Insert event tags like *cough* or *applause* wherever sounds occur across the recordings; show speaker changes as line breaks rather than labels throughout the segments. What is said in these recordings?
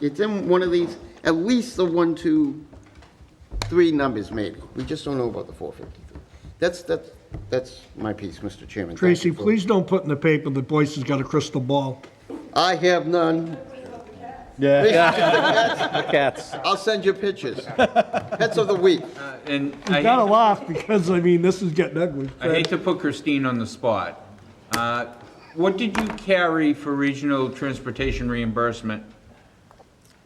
It's in one of these, at least the one, two, three numbers maybe. We just don't know about the 453. That's, that's, that's my piece, Mr. Chairman. Thank
Tracy,
you for-
please don't put in the paper that Boyce has got a crystal ball.
I have none.
*laughs*
Cats.
I'll send you pictures. Pets of the week.
And
You gotta
I,
laugh because, I mean, this is getting ugly.
I hate to put Christine on the spot. Uh, What did you carry for regional transportation reimbursement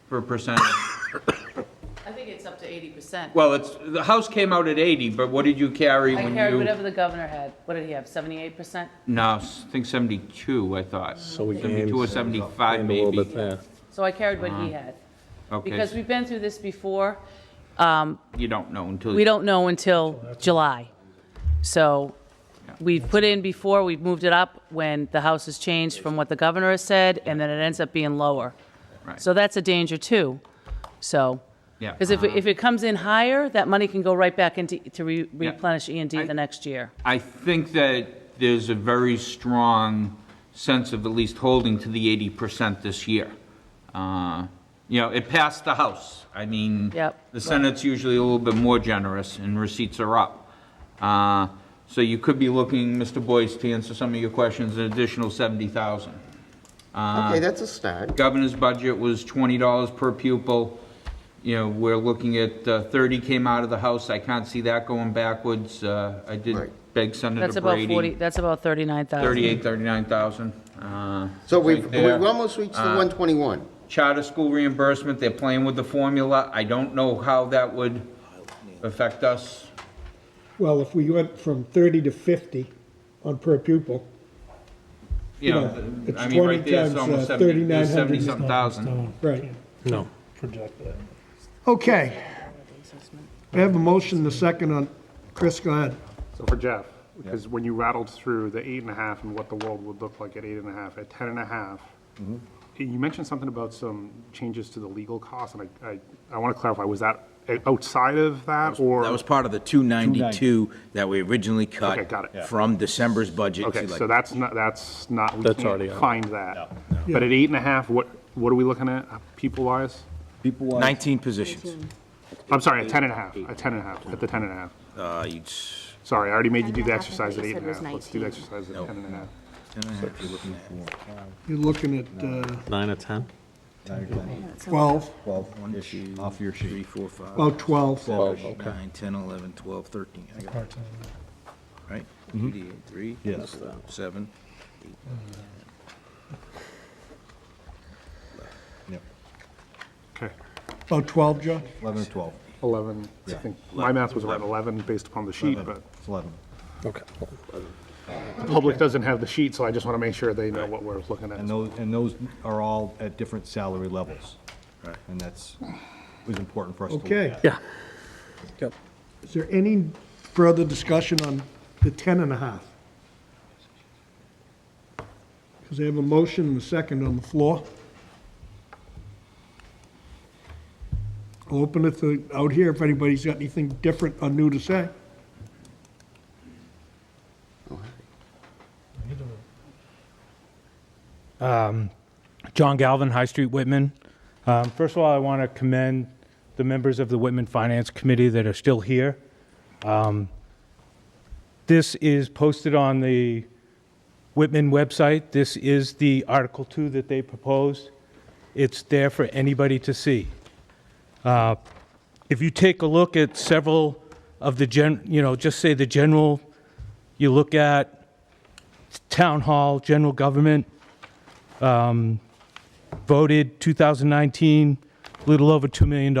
for percent?
I think it's up to eighty percent.
Well, it's, the house came out at 80, but what did you carry
I
when
carried
you?
whatever the governor had. What did he have, seventy-eight percent?
No, I think 72, I thought. So
we
72 or
aimed-
75
And a little bit
maybe.
there.
So I carried what he had. Because
Uh-huh. Okay,
we've been through this before. Um,
you don't know until.
we don't know until July. So we've put in before, we've moved it up when the House has changed from what the governor has said, and then it ends up being lower.
Right.
So that's a danger too, so.
Yeah.
Because if, it- if it comes in higher, that money can go right back into, to re-
Yeah.
replenish E and D
I-
the next year.
I think that there's a very strong sense of at least holding to the eighty percent this year. Uh, You know, it passed the House. I mean,
Yep.
the Senate's usually a little bit more generous, and receipts are up. Uh, So you could be looking, Mr. Boyce, to answer some of your questions, an additional seventy thousand. Uh,
Okay, that's a start.
Governor's budget was twenty dollars per pupil. You know, we're looking at uh, thirty came out of the House. I can't see that going backwards. Uh, I did
Right.
beg Senator
That's about forty,
Brady,
that's about thirty-nine thousand.
thirty-eight, thirty-nine thousand. Uh,
So we've,
it's right
we've
there. Uh,
almost reached the 121.
Charter school reimbursement, they're playing with the formula. I don't know how that would affect us.
Well, if we went from 30 to 50 on per pupil,
You
Yeah,
know,
it's
I mean,
20
right there, it's
times,
almost
uh,
seventy,
3,900
there's
is
seventy-something thousand.
right.
No.
project that.
Okay. I have a motion, the second on, Chris, go ahead.
So for Jeff, because when you rattled through the eight and a half and what the world would look like at eight and a half, at ten and a half, you mentioned something about some changes to the legal costs, and I, I, I want to clarify, was that outside of that or?
That was part of the 292 that we originally cut.
Okay, got it.
From December's budget to
Okay, so
like,
that's not, that's not, we
That's already
can't
out.
find that. But at eight and a half, what, what are we looking at, people wise?
19 positions.
I'm sorry, at ten and a half, at ten and a half, at the ten and a half.
Uh, each-
Sorry, I already made you do
Ten
the
and a half, I thought
exercise at
you
eight
said
and a
was
half. Let's do the
19.
exercise at ten and a half.
You're looking at uh,
Nine or 10?
12,
One, two, three, four, five,
about 12.
seven, eight, nine, 10, 11, 12, 13. I got it. Right?
Mm-hmm.
Two D eight, Three.
Yes,
four,
that.
Seven.
Okay.
About 12, Josh?
11 or 12?
11, I think, my math was around 11 based upon the sheet, but
It's 11.
Okay.
the public doesn't have the sheet, so I just want to make sure they know what we're looking
And
at.
those, and those are all at different salary levels. Right. And that's, was important for us to look
Okay.
Yeah.
Is there any further discussion on the 10 and a half? Because I have a motion and a second on the floor. I'll Open it to- out here if anybody's got anything different or new to say.
John Galvin, High Street, Whitman. Um, First of all, I want to commend the members of the Whitman Finance Committee that are still here. Um, This is posted on the Whitman website. This is the Article 2 that they proposed. It's there for anybody to see. Uh, If you take a look at several of the gen, you know, just say the general, you look at town hall, general government, voted 2019, little over $2 million.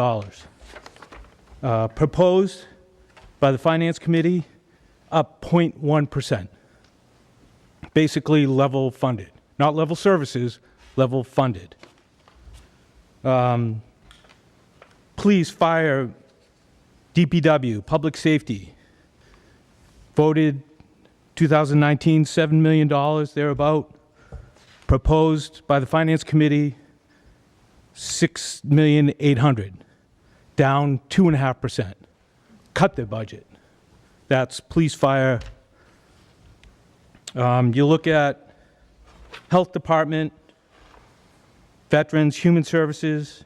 Uh, Proposed by the Finance Committee, up 0.1%. Basically level funded, not level services, level funded. Um, Police, fire, DPW, public safety, voted 2019, $7 million thereabout proposed by the Finance Committee, 6,800,000, down 2.5%. Cut their budget. That's police, fire. Um, You look at Health Department, Veterans, Human Services,